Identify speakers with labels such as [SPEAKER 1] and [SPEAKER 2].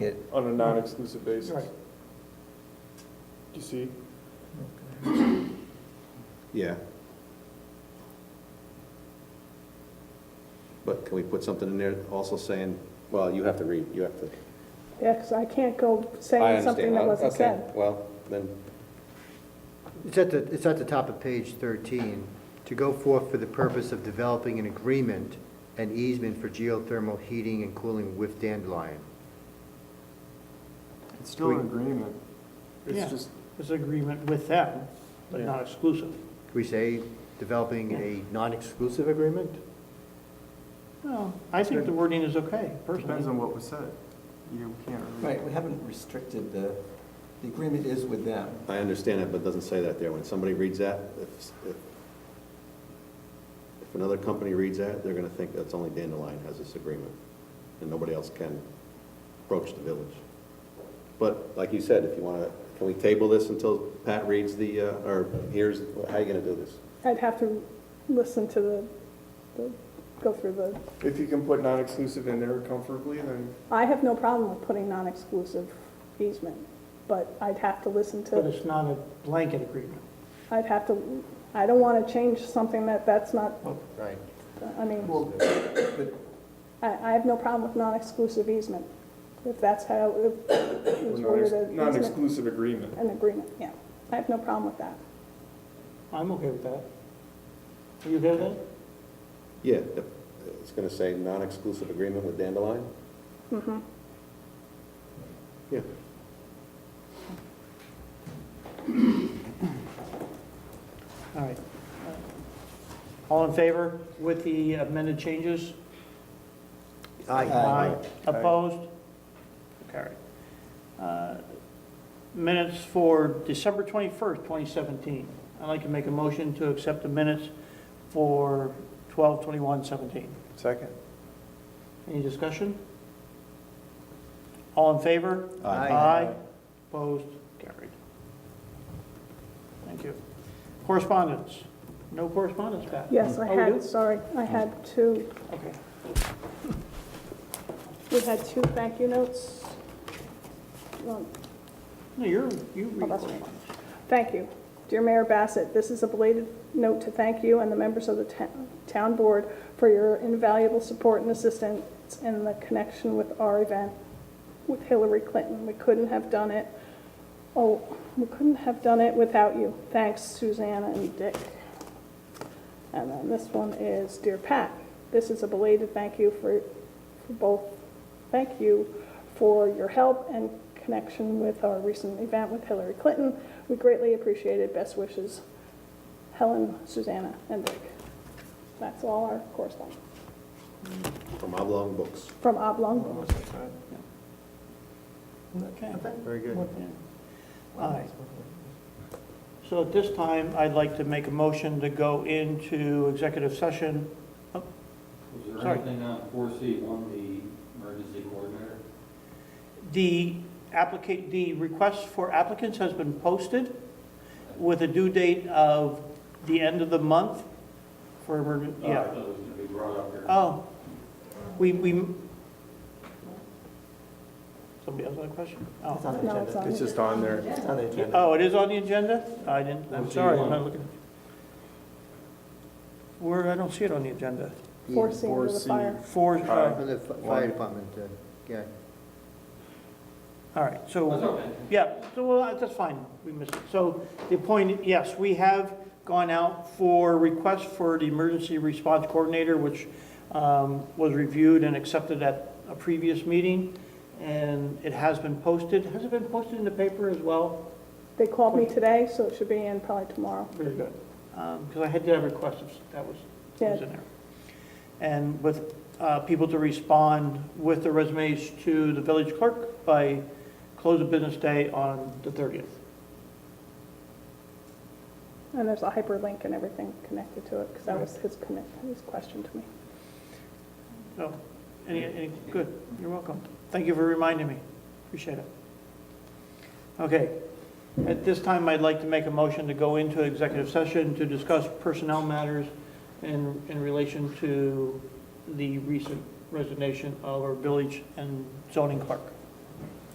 [SPEAKER 1] It-
[SPEAKER 2] on a non-exclusive basis.
[SPEAKER 3] Right.
[SPEAKER 2] You see?
[SPEAKER 4] Yeah. But can we put something in there also saying, well, you have to read, you have to.
[SPEAKER 5] Yeah, because I can't go
[SPEAKER 4] I
[SPEAKER 5] saying
[SPEAKER 4] understand.
[SPEAKER 5] something that
[SPEAKER 4] Uh,
[SPEAKER 5] wasn't
[SPEAKER 4] okay,
[SPEAKER 5] said.
[SPEAKER 4] Well, then,
[SPEAKER 3] It's at the, it's at the top of page 13. To go forth for the purpose of developing an agreement and easement for geothermal heating and cooling with Dandelion.
[SPEAKER 2] It's still an agreement.
[SPEAKER 6] Yeah.
[SPEAKER 2] It's just,
[SPEAKER 6] It's an agreement with them, but not exclusive.
[SPEAKER 3] Can we say developing a non-exclusive agreement?
[SPEAKER 6] Well, I think the wording is okay,
[SPEAKER 2] depends
[SPEAKER 6] personally.
[SPEAKER 2] on what was said. You can't. really-
[SPEAKER 1] Right, we haven't restricted the, the agreement is with them.
[SPEAKER 4] I understand it, but it doesn't say that there. When somebody reads that, if, if, if another company reads that, they're gonna think that's only Dandelion has this agreement, and nobody else can approach the village. But, like you said, if you wanna, can we table this until Pat reads the, uh, or hears, how you gonna do this?
[SPEAKER 5] I'd have to listen to the, the, go through the,
[SPEAKER 2] If you can put non-exclusive in there comfortably, then
[SPEAKER 5] I have no problem with putting non-exclusive easement, but I'd have to listen
[SPEAKER 6] But
[SPEAKER 5] to,
[SPEAKER 6] it's not a blanket agreement.
[SPEAKER 5] I'd have to, I don't want to change something that, that's not,
[SPEAKER 3] Right.
[SPEAKER 5] I mean,
[SPEAKER 1] Well, but
[SPEAKER 5] I, I have no problem with non-exclusive easement, if that's how, if
[SPEAKER 2] or
[SPEAKER 5] it was
[SPEAKER 2] non-ex-
[SPEAKER 5] worded as easement-
[SPEAKER 2] non-exclusive agreement.
[SPEAKER 5] an agreement, yeah. I have no problem with that.
[SPEAKER 6] I'm okay with that. Are you okay with that?
[SPEAKER 4] Yeah, if- it's gonna say non-exclusive agreement with Dandelion?
[SPEAKER 5] Mm-hmm.
[SPEAKER 4] Yeah.
[SPEAKER 6] All right. All in favor with the amended changes?
[SPEAKER 3] Aye.
[SPEAKER 6] Opposed? Carried. Uh, Minutes for December 21st, 2017. I'd like to make a motion to accept the minutes for 12/21/17.
[SPEAKER 2] Second.
[SPEAKER 6] Any discussion? All in favor?
[SPEAKER 3] Aye.
[SPEAKER 6] Aye. Opposed? Carried. Thank you. Correspondence? No correspondence, Pat?
[SPEAKER 4] Mm.
[SPEAKER 5] Yes, I
[SPEAKER 6] Oh, we
[SPEAKER 5] had,
[SPEAKER 6] do?
[SPEAKER 5] sorry, I had two,
[SPEAKER 6] Okay.
[SPEAKER 5] we had two thank you notes. Um,
[SPEAKER 6] No, you're, you read
[SPEAKER 5] Oh, that's right.
[SPEAKER 6] correspondence.
[SPEAKER 5] Thank you. Dear Mayor Bassett, this is a belated note to thank you and the members of the ta- town board for your invaluable support and assistance in the connection with our event with Hillary Clinton. We couldn't have done it, oh, we couldn't have done it without you. Thanks Susanna and Dick. And then this one is Dear Pat, this is a belated thank you for, for both, thank you for your help and connection with our recent event with Hillary Clinton. We greatly appreciate it. Best wishes, Helen, Susanna, and Dick. That's all our correspondence
[SPEAKER 4] From Oblong Books.
[SPEAKER 5] from Oblong.
[SPEAKER 6] Oh, Okay.
[SPEAKER 3] Very good.
[SPEAKER 6] Yeah. All right. So at this time, I'd like to make a motion to go into executive session.
[SPEAKER 7] Was there
[SPEAKER 6] Sorry.
[SPEAKER 7] anything on four C one, the emergency coordinator?
[SPEAKER 6] The applicant, the request for applicants has been posted with a due date of the end of the month for, emergen-
[SPEAKER 7] Oh, I
[SPEAKER 6] yeah.
[SPEAKER 7] thought it was gonna be brought up here.
[SPEAKER 6] Oh, we, we, somebody else have a question? Oh.
[SPEAKER 1] it's on the
[SPEAKER 5] No, it's
[SPEAKER 1] agenda.
[SPEAKER 5] on.
[SPEAKER 2] It's just on there.
[SPEAKER 1] It's on the agenda.
[SPEAKER 6] Oh, it is on the agenda? I didn't, I'm
[SPEAKER 7] Four C
[SPEAKER 6] sorry, I'm
[SPEAKER 7] one.
[SPEAKER 6] not looking. Where, I don't see it on the agenda.
[SPEAKER 5] Four C under the
[SPEAKER 2] 4C.
[SPEAKER 5] fire.
[SPEAKER 6] Four, uh,
[SPEAKER 3] From the fi- fire department, uh, yeah.
[SPEAKER 6] all right,
[SPEAKER 7] That's
[SPEAKER 6] so,
[SPEAKER 7] okay.
[SPEAKER 6] yeah, so, well, that's fine, we missed it. So the point, yes, we have gone out for requests for the emergency response coordinator, which um, was reviewed and accepted at a previous meeting, and it has been posted. Has it been posted in the paper as well?
[SPEAKER 5] They called me today, so it should be in probably tomorrow.
[SPEAKER 6] Very good. Because Um, I had to have requests, if that was, that was in there. And with uh, people to respond with their resumes to the village clerk by close of business day on the 30th.
[SPEAKER 5] And there's a hyperlink and everything connected to it, because that was his commit, his question to me.
[SPEAKER 6] So, Oh, any, any, good, you're welcome. Thank you for reminding me, appreciate it. Okay, at this time, I'd like to make a motion to go into executive session to discuss personnel matters in, in relation to the recent resignation of our village and zoning clerk.